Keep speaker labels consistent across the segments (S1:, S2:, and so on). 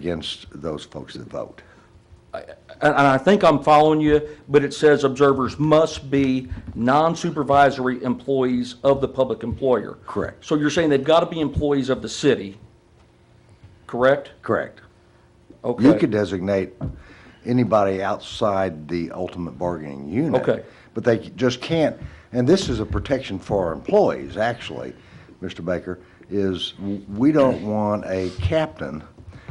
S1: against those folks that vote.
S2: And, and I think I'm following you, but it says observers must be non-supervisory employees of the public employer.
S1: Correct.
S2: So you're saying they've got to be employees of the city, correct?
S1: Correct.
S2: Okay.
S1: You could designate anybody outside the ultimate bargaining unit.
S2: Okay.
S1: But they just can't, and this is a protection for our employees, actually, Mr. Baker, is we don't want a captain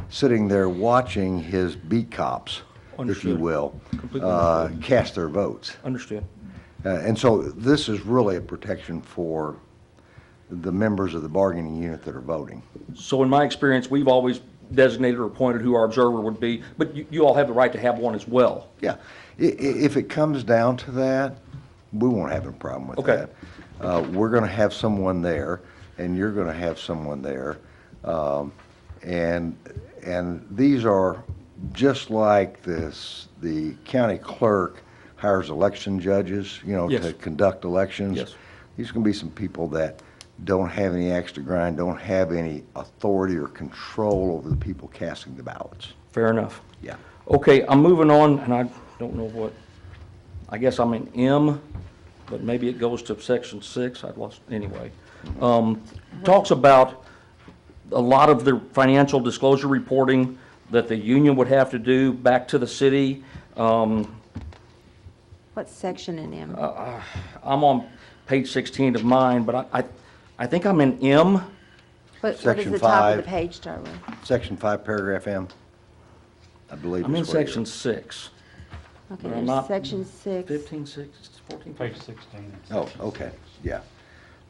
S1: sitting there watching his beat cops, if you
S2: Understood.
S1: will,
S2: Completely
S1: uh, cast their votes.
S2: Understood.
S1: Uh, And so this is really a protection for the members of the bargaining unit that are voting.
S2: So in my experience, we've always designated or appointed who our observer would be, but you, you all have the right to have one as well.
S1: Yeah, i- i- if it comes down to that, we won't have a problem with
S2: Okay.
S1: that. Uh, we're gonna have someone there, and you're gonna have someone there. Um, and, and these are just like this, the county clerk hires election judges, you know, to
S2: Yes.
S1: conduct elections.
S2: Yes.
S1: There's gonna be some people that don't have any axe to grind, don't have any authority or control over the people casting the ballots.
S2: Fair enough.
S1: Yeah.
S2: Okay, I'm moving on, and I don't know what, I guess I'm in M, but maybe it goes to section six, I've lost, anyway. Um, Talks about a lot of the financial disclosure reporting that the union would have to do back to the city. Um,
S3: What section in
S2: Uh,
S3: M?
S2: I'm on page 16 of mine, but I, I I think I'm in M.
S3: What, what
S1: Section
S3: does the top
S1: five.
S3: of the page start with?
S1: Section five, paragraph M, I believe.
S2: I'm in
S1: is where you're-
S2: section six.
S3: Okay,
S2: I'm
S3: there's
S2: not-
S3: section six.
S2: 15, 6, 14,
S4: Page 16.
S1: Oh, okay, yeah.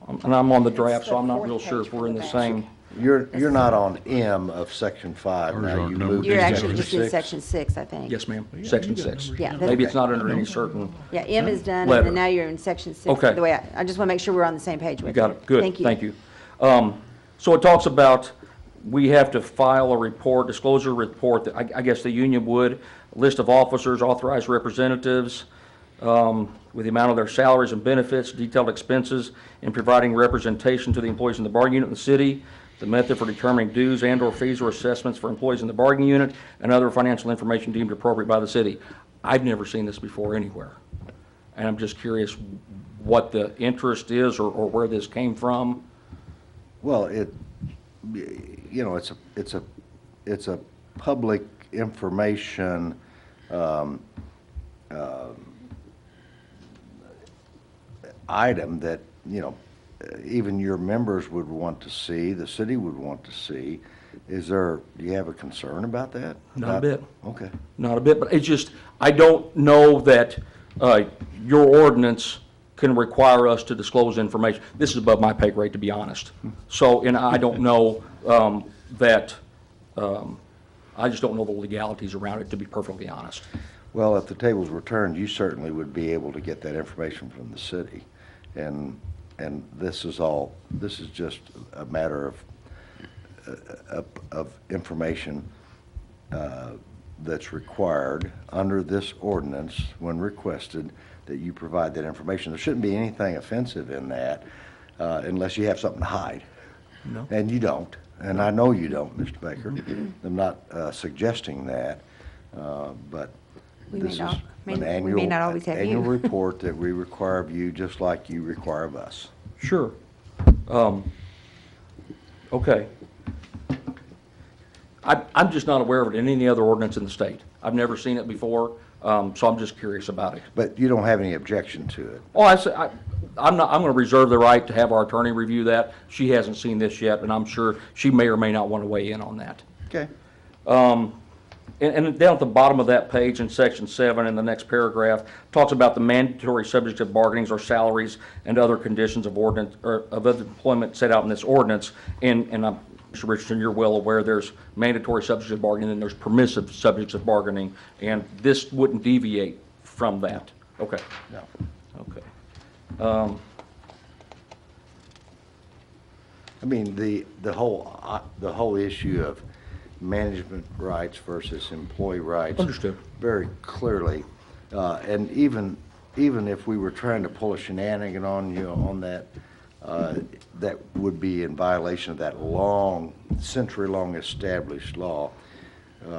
S2: Um, And I'm on the draft,
S3: It's
S2: so
S3: the
S2: I'm not
S3: fourth
S2: real sure
S3: page
S2: if we're in the
S3: from the back.
S2: same.
S1: You're, you're not on M of section five.
S5: Ours
S1: Now
S5: aren't
S1: you
S5: numbered.
S1: moved
S3: You're
S1: to section
S3: actually just in
S1: six.
S3: section six, I think.
S2: Yes, ma'am, section six.
S3: Yeah, that's-
S2: Maybe it's not under any certain,
S3: Yeah, M is done, and
S2: Letter.
S3: then now you're in section six.
S2: Okay.
S3: The way, I, I just want to make sure we're on the same page with
S2: you
S3: it.
S2: got it, good,
S3: Thank you.
S2: thank you. Um, So it talks about, we have to file a report, disclosure report, that I I guess the union would, list of officers, authorized representatives, um, with the amount of their salaries and benefits, detailed expenses, and providing representation to the employees in the bargaining unit in the city, the method for determining dues and/or fees or assessments for employees in the bargaining unit, and other financial information deemed appropriate by the city. I've never seen this before anywhere. And I'm just curious what the interest is or, or where this came from.
S1: Well, it, you know, it's a, it's a, it's a public information, um, um, item that, you know, even your members would want to see, the city would want to see. Is there, do you have a concern about that?
S2: Not a
S1: About-
S2: bit.
S1: Okay.
S2: Not a bit, but it's just, I don't know that, uh, your ordinance can require us to disclose information. This is above my pay grade, to be honest. So, and I don't know, um, that, um, I just don't know the legalities around it, to be perfectly honest.
S1: Well, if the tables were turned, you certainly would be able to get that information from the city. And, and this is all, this is just a matter of, uh, of, of information uh, that's required under this ordinance when requested, that you provide that information. There shouldn't be anything offensive in that uh, unless you have something to hide.
S2: No.
S1: And you don't, and I know you don't, Mr. Baker. I'm not uh, suggesting that, uh, but
S3: We may
S1: this is
S3: not- may-
S1: an
S3: we may
S1: annual.
S3: not always have you.
S1: Annual report that we require of you, just like you require of us.
S2: Sure. Um, Okay. I, I'm just not aware of it in any other ordinance in the state. I've never seen it before, um, so I'm just curious about it.
S1: But you don't have any objection to it.
S2: Oh, I say, I, I'm not, I'm gonna reserve the right to have our attorney review that. She hasn't seen this yet, and I'm sure she may or may not want to weigh in on that.
S1: Okay.
S2: And, and down at the bottom of that page in section seven, in the next paragraph, talks about the mandatory subject of bargainings or salaries and other conditions of ordinance, or of other employment set out in this ordinance. And, and I'm, Mr. Richardson, you're well aware, there's mandatory subjects of bargaining, and there's permissive subjects of bargaining, and this wouldn't deviate from that. Okay.
S1: No.
S2: Okay.
S1: I mean, the, the whole, uh, the whole issue of management rights versus employee rights.
S2: Understood.
S1: Very clearly. Uh, And even, even if we were trying to pull a shenanigan on you on that, uh, that would be in violation of that long, century-long established law